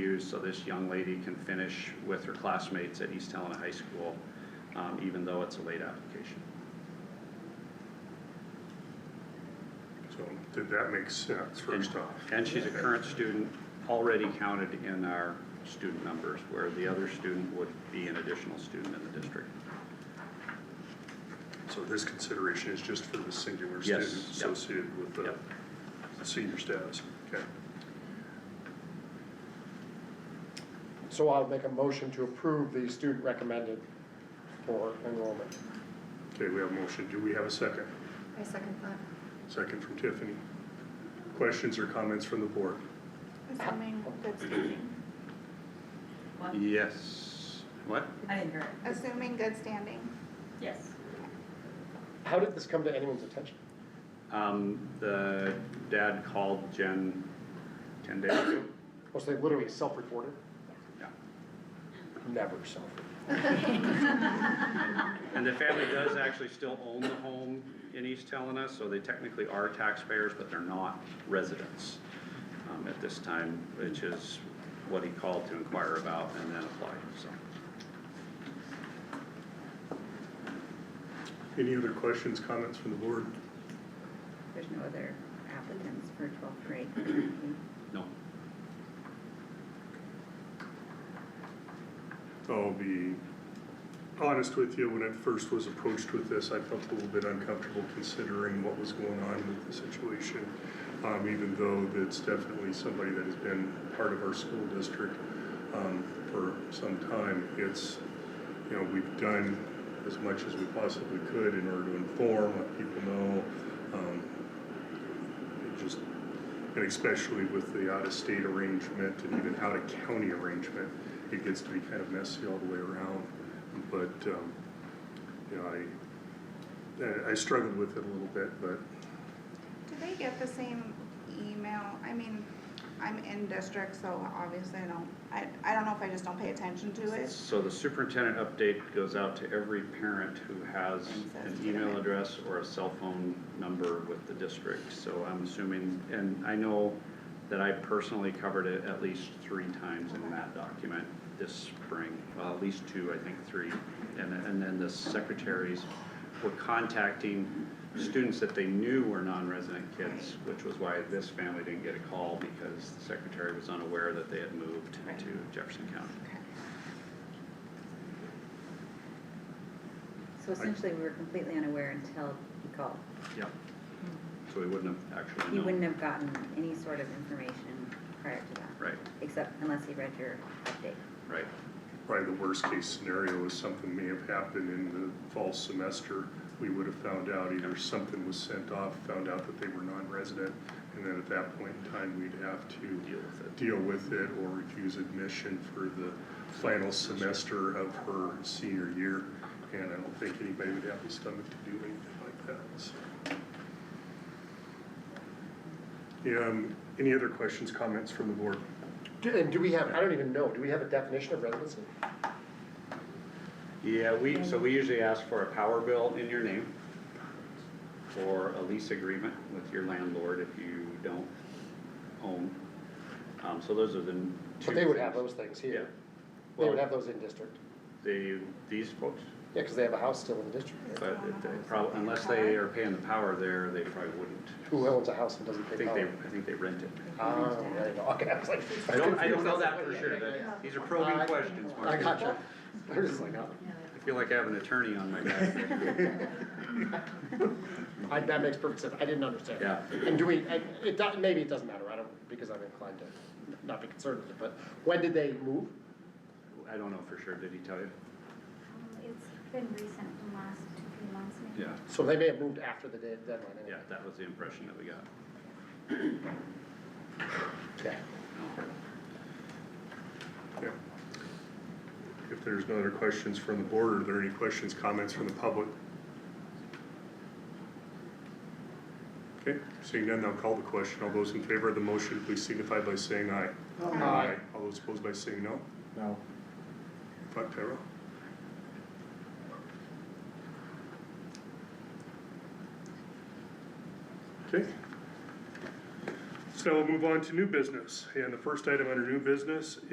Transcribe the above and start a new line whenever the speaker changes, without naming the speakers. used so this young lady can finish with her classmates at East Helena High School, um, even though it's a late application.
So did that make sense, first off?
And she's a current student, already counted in our student numbers, where the other student would be an additional student in the district.
So this consideration is just for the singular
Yes,
student
yep.
associated with the
Yep.
senior status, okay?
So I'll make a motion to approve the student recommended for enrollment.
Okay, we have a motion, do we have a second?
I second that.
Second from Tiffany. Questions or comments from the board?
Assuming good standing.
What?
Yes, what?
I didn't hear it.
Assuming good standing.
Yes.
How did this come to anyone's attention?
Um, the dad called Jen ten days ago.
Was they literally self-reported?
Yeah.
Never self-reported.
And the family does actually still own the home in East Helena, so they technically are taxpayers, but they're not residents um, at this time, which is what he called to inquire about and then applied, so.
Any other questions, comments from the board?
There's no other applicants for twelfth grade currently.
No,
I'll be honest with you, when I first was approached with this, I felt a little bit uncomfortable considering what was going on with the situation. Um, even though that's definitely somebody that has been part of our school district, um, for some time, it's, you know, we've done as much as we possibly could in order to inform, let people know, um, it just, and especially with the out-of-state arrangement and even out-of-county arrangement, it gets to be kind of messy all the way around. But, um, you know, I, I- I struggled with it a little bit, but
Do they get the same email? I mean, I'm in district, so obviously I don't, I, I don't know if I just don't pay attention to it.
So the superintendent update goes out to every parent who has an email address or a cell phone number with the district. So I'm assuming, and I know that I personally covered it at least three times in that document this spring. Well, at least two, I think three. And, and then the secretaries were contacting students that they knew were non-resident kids, which was why this family didn't get a call because the secretary was unaware that they had moved
Right.
to Jefferson County.
Okay.
So essentially, we were completely unaware until he called.
Yeah. So Hmm. we wouldn't have actually
He
known.
wouldn't have gotten any sort of information prior to that.
Right,
Except unless he read your update.
right.
probably the worst-case scenario is something may have happened in the fall semester. We would have found out either something was sent off, found out that they were non-resident, and then at that point in time, we'd have to
Deal with it.
deal with it or refuse admission for the final semester of her senior year. And I don't think anybody would have the stomach to do anything like that, so. Yeah, um, any other questions, comments from the board?
Do- And do we have, I don't even know, do we have a definition of residency?
Yeah, we, so we usually ask for a power bill in your name or a lease agreement with your landlord if you don't own. Um, so those are the two.
But they would have
things.
those things
Yeah.
here. They would have
Well,
those in district.
they, these folks,
Yeah, because they have a house still in the district.
but if they probably, unless they are paying the power there, they probably wouldn't.
Who owns a house and doesn't
I
pay
think they,
power?
I think they rent it.
Ah, there you go. okay, I was like.
I don't, I don't know that for sure. That- These are probing
I-
questions, Mark.
I gotcha. I was just like, oh,
I feel like I have an attorney on my back.
I- that makes perfect sense. I didn't understand.
Yeah.
And do we, and it, do- maybe it doesn't matter, I don't, because I'm inclined to not be concerned with it, but when did they move?
I don't know for sure. Did he tell you?
Um, It's been recent, the last two, three months maybe.
Yeah.
So they may have moved after the de- deadline
Yeah,
anyway.
that was the impression that we got.
Yeah.
Yeah. If there's no other questions from the board, are there any questions, comments from the public? Okay, seeing none, I'll call the question. All those in favor of the motion, please signify by saying aye.
Aye.
All those opposed by saying no.
No.
Five Tyrell. Okay. So we'll move on to new business. And the first item under new business